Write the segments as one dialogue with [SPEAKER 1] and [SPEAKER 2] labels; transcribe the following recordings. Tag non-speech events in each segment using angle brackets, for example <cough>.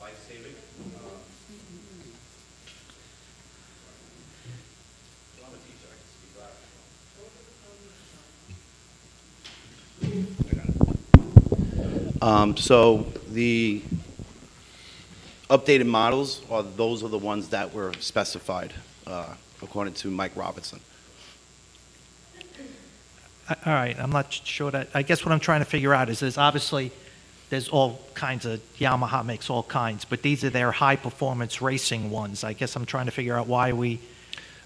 [SPEAKER 1] life-saving. Um, Well, I'm a teacher, I can speak loud.
[SPEAKER 2] Um, So the updated models are, those are the ones that were specified, uh, according to Mike Robinson.
[SPEAKER 3] A- All right, I'm not sure that, I guess what I'm trying to figure out is there's obviously, there's all kinds of, Yamaha makes all kinds, but these are their high-performance racing ones. I guess I'm trying to figure out why are we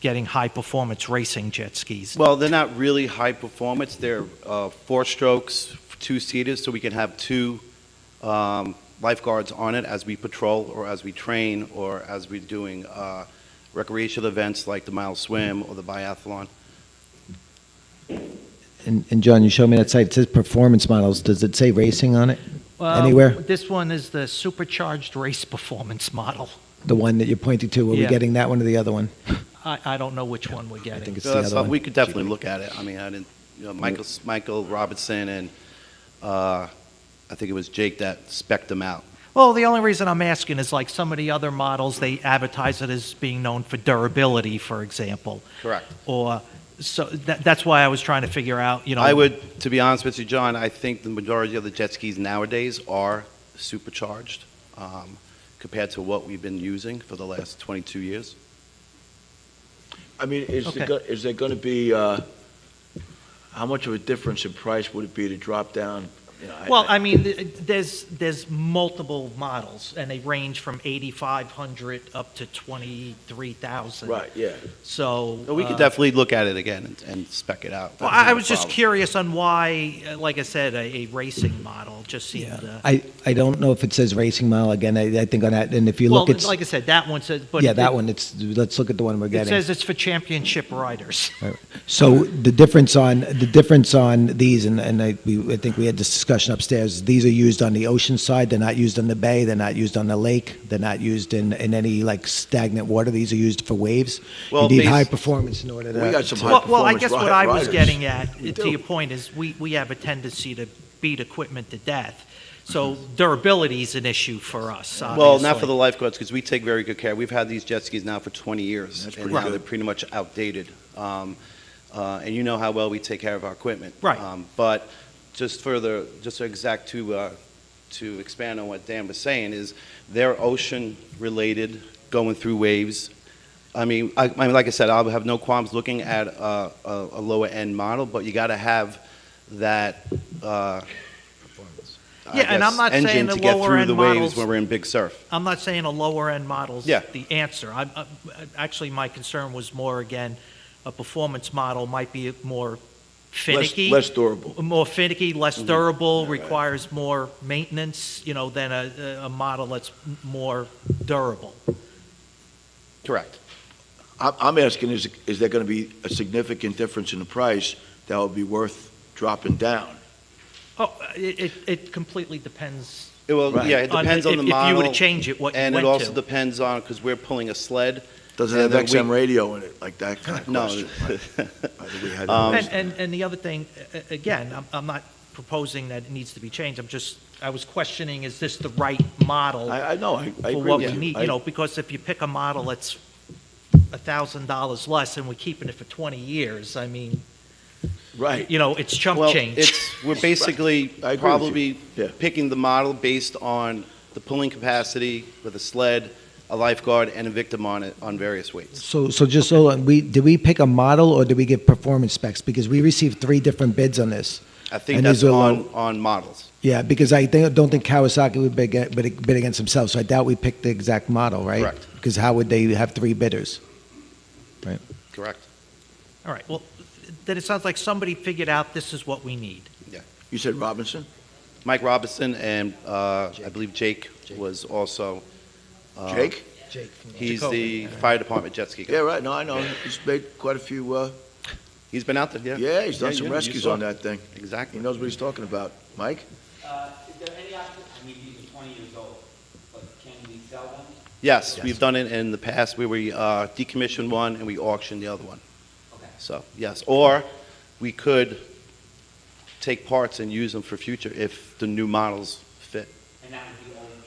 [SPEAKER 3] getting high-performance racing jet skis?
[SPEAKER 2] Well, they're not really high performance, they're uh, four strokes, two-seaters, so we can have two um, lifeguards on it as we patrol, or as we train, or as we're doing uh, recreational events like the mile swim or the biathlon.
[SPEAKER 4] And, and John, you showed me that site, it says performance models, does it say racing on it? Anywhere?
[SPEAKER 3] This one is the supercharged race performance model.
[SPEAKER 4] The one that you're pointing to, are we
[SPEAKER 3] Yeah.
[SPEAKER 4] getting that one or the other one?
[SPEAKER 3] I, I don't know which one we're
[SPEAKER 4] I think
[SPEAKER 3] getting.
[SPEAKER 4] it's
[SPEAKER 2] So
[SPEAKER 4] the
[SPEAKER 2] that's
[SPEAKER 4] other
[SPEAKER 2] something
[SPEAKER 4] one. Mm.
[SPEAKER 2] We could definitely look at it. I mean, I didn't, you know, Michael, Michael Robinson and, uh, I think it was Jake that spec'd them out.
[SPEAKER 3] Well, the only reason I'm asking is like some of the other models, they advertise it as being known for durability, for example,
[SPEAKER 2] Correct.
[SPEAKER 3] or, so that, that's why I was trying to figure out, you know.
[SPEAKER 2] I would, to be honest with you, John, I think the majority of the jet skis nowadays are supercharged, um, compared to what we've been using for the last 22 years.
[SPEAKER 5] I mean, is
[SPEAKER 3] Okay.
[SPEAKER 5] there, go- is there gonna be, uh, how much of a difference in price would it be to drop down? you know,
[SPEAKER 3] Well, I mean, th- there's, there's multiple models, and they range from 8,500 up to 23,000.
[SPEAKER 5] Right, yeah.
[SPEAKER 3] So.
[SPEAKER 2] But we
[SPEAKER 3] uh,
[SPEAKER 2] could definitely look at it again and, and spec it out.
[SPEAKER 3] Well,
[SPEAKER 2] That's
[SPEAKER 3] I I
[SPEAKER 2] not a
[SPEAKER 3] was just
[SPEAKER 2] problem.
[SPEAKER 3] curious on why, uh, like I said, a a racing model just seemed. uh,
[SPEAKER 4] I, I don't know if it says racing model, again, I, I think on that, and if you
[SPEAKER 3] Well,
[SPEAKER 4] look, it's,
[SPEAKER 3] like I said, that one says, but.
[SPEAKER 4] yeah,
[SPEAKER 3] it-
[SPEAKER 4] that one, it's, let's look at the one we're
[SPEAKER 3] It
[SPEAKER 4] getting.
[SPEAKER 3] says it's for championship
[SPEAKER 4] <laughs>
[SPEAKER 3] riders.
[SPEAKER 4] So the difference on, the difference on these, and, and I, we, I think we had this discussion upstairs, these are used on the ocean side, they're not used on the bay, they're not used on the lake, they're not used in, in any like stagnant water, these are used for waves.
[SPEAKER 2] Well,
[SPEAKER 4] You need
[SPEAKER 2] bas-
[SPEAKER 4] high performance in order to.
[SPEAKER 5] We got some
[SPEAKER 4] to-
[SPEAKER 5] high
[SPEAKER 3] Well, well, I
[SPEAKER 5] performance
[SPEAKER 3] guess
[SPEAKER 5] ri-
[SPEAKER 3] what I was
[SPEAKER 5] riders.
[SPEAKER 3] getting at,
[SPEAKER 5] We
[SPEAKER 3] to
[SPEAKER 5] do.
[SPEAKER 3] your point, is we, we have a tendency to beat equipment to death. So durability is an issue for us,
[SPEAKER 2] Well, not for
[SPEAKER 3] obviously.
[SPEAKER 2] the lifeguards, because we take very good care. We've had these jet skis now for 20 years.
[SPEAKER 5] That's
[SPEAKER 2] And
[SPEAKER 5] pretty
[SPEAKER 2] now
[SPEAKER 5] good.
[SPEAKER 2] they're pretty much outdated. Um, uh, And you know how well we take care of our equipment.
[SPEAKER 3] Right.
[SPEAKER 2] Um, But just further, just to exact to, uh, to expand on what Dan was saying, is they're ocean-related, going through waves. I mean, I, I mean, like I said, I'll have no qualms looking at a, a a lower-end model, but you got to have that, uh, I
[SPEAKER 3] Yeah, and I'm
[SPEAKER 2] guess,
[SPEAKER 3] not saying
[SPEAKER 2] engine
[SPEAKER 3] the
[SPEAKER 2] to get through
[SPEAKER 3] lower-end
[SPEAKER 2] the waves
[SPEAKER 3] models-
[SPEAKER 2] when we're in big surf.
[SPEAKER 3] I'm not saying a lower-end model's
[SPEAKER 2] Yeah.
[SPEAKER 3] the answer. I'm, I'm- actually, my concern was more, again, a performance model might be more
[SPEAKER 5] Less,
[SPEAKER 3] finicky.
[SPEAKER 5] less durable. Mm-hmm.
[SPEAKER 3] More finicky, less durable,
[SPEAKER 5] Yeah, right.
[SPEAKER 3] requires more maintenance, you know, than a, a- a model that's m- more durable.
[SPEAKER 2] Correct.
[SPEAKER 5] I'm, I'm asking, is, is there gonna be a significant difference in the price that would be worth dropping down?
[SPEAKER 3] Oh, it, it- it completely depends.
[SPEAKER 2] It will,
[SPEAKER 5] Right.
[SPEAKER 2] yeah, it depends
[SPEAKER 3] if-
[SPEAKER 2] on the
[SPEAKER 3] If you
[SPEAKER 2] model.
[SPEAKER 3] were to change it, what you
[SPEAKER 2] And it
[SPEAKER 3] went
[SPEAKER 2] also
[SPEAKER 3] to.
[SPEAKER 2] depends on, because we're pulling a sled.
[SPEAKER 5] Does it
[SPEAKER 2] Yeah,
[SPEAKER 5] have
[SPEAKER 2] that
[SPEAKER 5] XM
[SPEAKER 2] we-
[SPEAKER 5] radio in it, like that kind of
[SPEAKER 2] No.
[SPEAKER 5] <laughs> question? I think we had-
[SPEAKER 3] And, and, and the other thing, a- a- again, I'm, I'm not proposing that it needs to be changed, I'm just, I was questioning, is this the right model?
[SPEAKER 5] I, I know, I, I
[SPEAKER 3] for
[SPEAKER 5] agree
[SPEAKER 3] what
[SPEAKER 5] with
[SPEAKER 3] we
[SPEAKER 5] you.
[SPEAKER 3] need,
[SPEAKER 5] I-
[SPEAKER 3] you know, because if you pick a model that's a thousand dollars less and we're keeping it for twenty years, I mean,
[SPEAKER 5] Right.
[SPEAKER 3] you know, it's chump
[SPEAKER 2] <laughs> Well,
[SPEAKER 3] change.
[SPEAKER 2] it's, we're basically
[SPEAKER 5] <laughs> I agree with you.
[SPEAKER 2] probably
[SPEAKER 5] Yeah.
[SPEAKER 2] picking the model based on the pulling capacity with a sled, a lifeguard, and a victim on it, on various weights.
[SPEAKER 4] So, so just so, and we, did we pick a model or did we give performance specs? Because we received three different bids on this.
[SPEAKER 2] I think
[SPEAKER 4] And
[SPEAKER 2] that's
[SPEAKER 4] these are
[SPEAKER 2] on,
[SPEAKER 4] all-
[SPEAKER 2] on models.
[SPEAKER 4] Yeah, because I thi- don't think Kawasaki would bid, ag- bid bid against themselves, so I doubt we picked the exact model, right?
[SPEAKER 2] Correct.
[SPEAKER 4] Because how would they have three bidders?
[SPEAKER 2] Correct.
[SPEAKER 3] All right, well, then it sounds like somebody figured out this is what we need.
[SPEAKER 5] You said Robinson?
[SPEAKER 2] Mike Robinson and, uh, I believe Jake was also. uh,
[SPEAKER 5] Jake?
[SPEAKER 2] He's the
[SPEAKER 3] Jacoby.
[SPEAKER 2] fire department jet ski guy.
[SPEAKER 5] Yeah, right, no, I know, he's made quite a few, uh,
[SPEAKER 2] He's been out there, yeah.
[SPEAKER 5] yeah, he's done some
[SPEAKER 2] you- you
[SPEAKER 5] rescues
[SPEAKER 2] saw
[SPEAKER 5] on
[SPEAKER 2] it.
[SPEAKER 5] that Mm-hmm. thing. He
[SPEAKER 2] Exactly.
[SPEAKER 5] knows what he's talking about. Mike?
[SPEAKER 6] Uh, is there any option, I mean, these are twenty years old, but can we sell them?
[SPEAKER 2] Yes, we've done it in the past where we uh, decommissioned one and we auctioned the other one.
[SPEAKER 6] Okay.
[SPEAKER 2] So, yes, or we could take parts and use them for future if the new models fit.
[SPEAKER 6] And that would